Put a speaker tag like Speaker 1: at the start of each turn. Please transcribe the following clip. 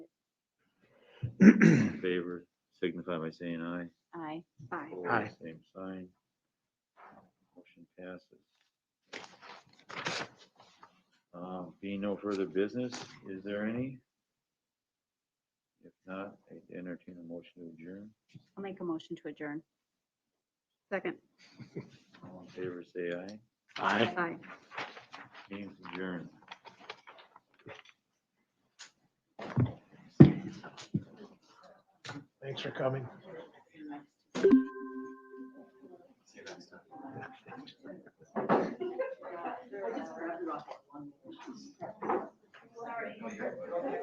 Speaker 1: in favor, signify by saying aye.
Speaker 2: Aye.
Speaker 3: Aye.
Speaker 1: Opposed,
Speaker 4: Aye.
Speaker 1: Same sign. Motion passes. Um, Being no further business, is there any? If not, I entertain a motion to adjourn.
Speaker 2: I'll make a motion to adjourn.
Speaker 3: Second.
Speaker 1: All in favor, say aye.
Speaker 4: Aye.
Speaker 3: Aye.
Speaker 1: Meeting's adjourned.
Speaker 4: Thanks for coming.